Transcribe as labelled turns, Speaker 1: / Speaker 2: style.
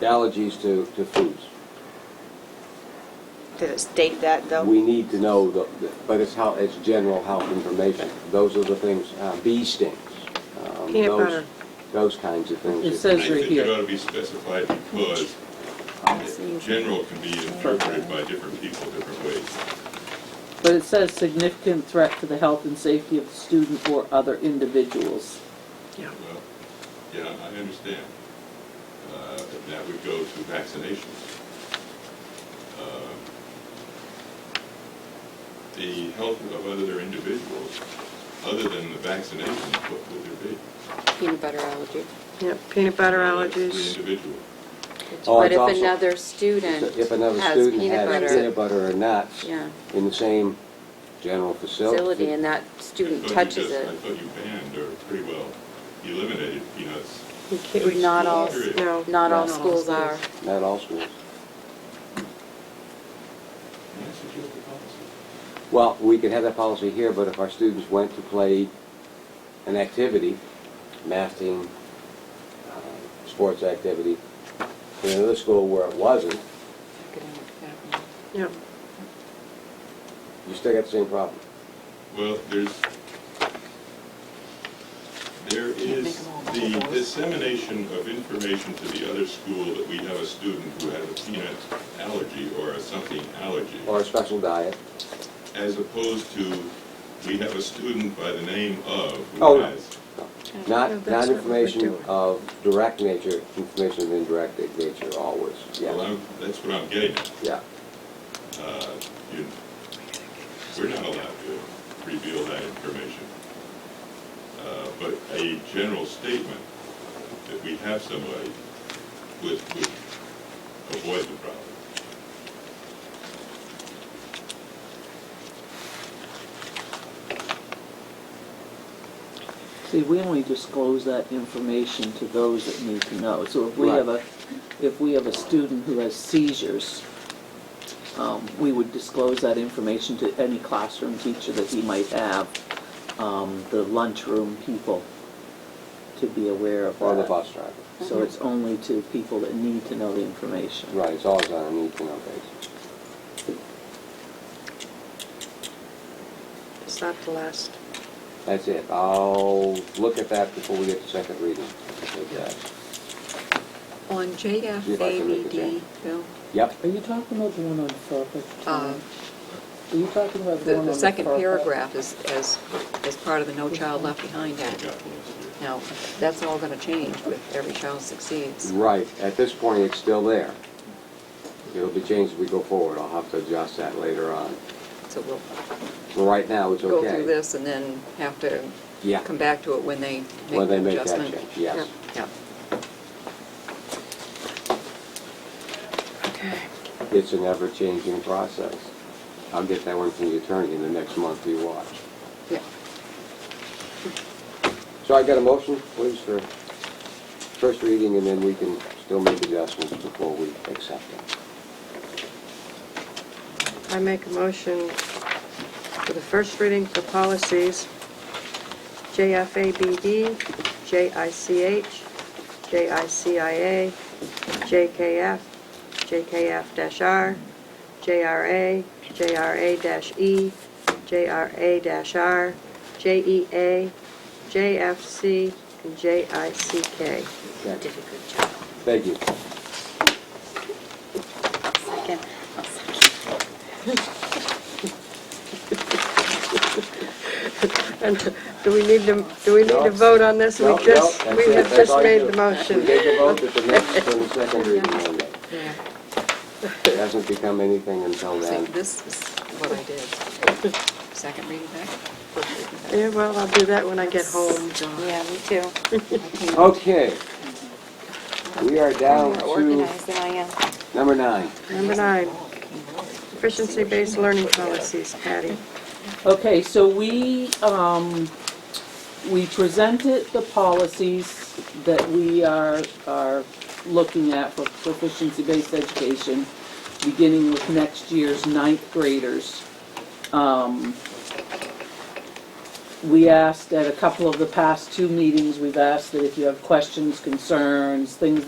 Speaker 1: allergies to, to foods.
Speaker 2: Did it state that, though?
Speaker 1: We need to know, the the- but it's how, it's general health information. Those are the things, uh, bee stings. um,
Speaker 2: Peanut
Speaker 1: those-
Speaker 2: butter.
Speaker 1: Those kinds of things.
Speaker 3: It
Speaker 1: that-
Speaker 3: says-
Speaker 4: And I
Speaker 3: right
Speaker 4: think it
Speaker 3: here.
Speaker 4: ought to be specified because it- general can be interpreted by different people different ways.
Speaker 3: But it says significant threat to the health and safety of the student or other individuals.
Speaker 4: Well, yeah, I understand. Uh, but That would go to vaccinations. Um, The health of other individuals, other than the vaccinations, what would there be?
Speaker 5: peanut butter allergy.
Speaker 2: Yeah, peanut butter
Speaker 4: The
Speaker 2: allergies.
Speaker 4: individual.
Speaker 1: Oh,
Speaker 5: But
Speaker 1: it's
Speaker 5: if
Speaker 1: also-
Speaker 5: another student
Speaker 1: If another
Speaker 5: has
Speaker 1: student
Speaker 5: peanut
Speaker 1: has peanut
Speaker 5: butter
Speaker 1: butter or nuts
Speaker 5: Yeah.
Speaker 1: in the same general facility.
Speaker 5: facility and that
Speaker 4: I
Speaker 5: student
Speaker 4: thought you
Speaker 5: touches
Speaker 4: just- I
Speaker 5: it,
Speaker 4: thought you banned or pretty well eliminated peanuts.
Speaker 2: You can't-
Speaker 4: in
Speaker 5: Not
Speaker 4: school
Speaker 5: all-
Speaker 4: period.
Speaker 2: No.
Speaker 5: not all
Speaker 3: Not all
Speaker 5: schools are.
Speaker 1: Not all schools.
Speaker 4: And that's just the policy.
Speaker 1: Well, we could have that policy here, but if our students went to play an activity, math team, uh, sports activity, in another school where it wasn't,
Speaker 2: Yeah.
Speaker 1: you still got the same problem.
Speaker 4: Well, there's, there is the dissemination of information to the other school that we have a student who has a peanut allergy or a something allergy,
Speaker 1: Or a special diet.
Speaker 4: as opposed to, we have a student by the name of
Speaker 1: Oh,
Speaker 4: who
Speaker 1: no.
Speaker 4: has.
Speaker 2: No,
Speaker 1: Not, not
Speaker 2: that's what we're
Speaker 1: information
Speaker 2: doing.
Speaker 1: of direct nature, information of indirect nature always.
Speaker 4: Well,
Speaker 1: Yeah,
Speaker 4: I'm, that's what I'm getting at.
Speaker 1: yeah.
Speaker 4: Uh, you- We're not allowed to reveal that information. Uh, But a general statement that we have somebody would, would avoid the problem.
Speaker 3: See, we only disclose that information to those that need to know. So if we
Speaker 1: Right.
Speaker 3: have a, if we have a student who has seizures, um, we would disclose that information to any classroom teacher that he might have, um, the lunchroom people, to be aware of that.
Speaker 1: Or the bus driver.
Speaker 3: So it's only to people that need to know the information.
Speaker 1: Right, it's always on a need to know basis.
Speaker 2: It's not the last.
Speaker 1: That's it. I'll look at that before we get to second reading. Okay.
Speaker 5: On
Speaker 1: if I can make it JFABD,
Speaker 5: JFABD, Bill, Uh,
Speaker 1: Yep,
Speaker 3: Are you talking about the one on FERPA? Tom? Are you talking about the
Speaker 5: the,
Speaker 3: one on
Speaker 5: the second
Speaker 3: FERPA?
Speaker 5: paragraph is, as, as part of the No Child Left Behind
Speaker 4: I
Speaker 5: Act.
Speaker 4: got one this year.
Speaker 5: Now, that's all gonna change with Every Child Succeeds.
Speaker 1: right. At this point, it's still there. It'll be changed as we go forward. I'll have to adjust that later on.
Speaker 5: So we'll
Speaker 1: But right now, it's
Speaker 5: go
Speaker 1: okay.
Speaker 5: through this and then have to
Speaker 1: Yeah.
Speaker 5: come back to it when they
Speaker 1: When
Speaker 5: make
Speaker 1: they
Speaker 5: the
Speaker 1: make that
Speaker 5: adjustment.
Speaker 1: change, yes.
Speaker 5: Yeah.
Speaker 1: It's an ever-changing process. I'll get that one from the attorney in the next month you watch.
Speaker 5: Yeah.
Speaker 1: So I got a motion, please, for first reading, and then we can still make adjustments before we accept it.
Speaker 2: I make a motion for the first reading for policies, JFABD, JICH, JICIA, JKF, JKF-R, JRA, JRA-E, JRA-R, JEA, JFC, and JICK.
Speaker 1: Did a good job. Thank you.
Speaker 2: And do we need to, do we need
Speaker 1: No.
Speaker 2: to vote on this?
Speaker 1: No,
Speaker 2: We
Speaker 1: no,
Speaker 2: just,
Speaker 1: that's
Speaker 2: we
Speaker 1: it.
Speaker 2: have
Speaker 1: That's
Speaker 2: just
Speaker 1: all you
Speaker 2: made
Speaker 1: do.
Speaker 2: the motion.
Speaker 1: We take a vote at the next, for the second reading Monday.
Speaker 5: Yeah.
Speaker 1: It hasn't become anything until
Speaker 5: So
Speaker 1: then.
Speaker 5: this is what I did. Second reading back? First reading
Speaker 2: Yeah, well, I'll do that when I get home.
Speaker 6: Yeah, me too.
Speaker 1: Okay. We are
Speaker 6: I'm
Speaker 1: down
Speaker 6: more
Speaker 1: to
Speaker 6: organized than I am.
Speaker 1: number nine.
Speaker 2: Number nine, efficiency-based learning policies, Patty.
Speaker 3: Okay, so we, um, we presented the policies that we are, are looking at for proficiency-based education, beginning with next year's ninth graders. Um, we asked at a couple of the past two meetings, we've asked that if you have questions, concerns, things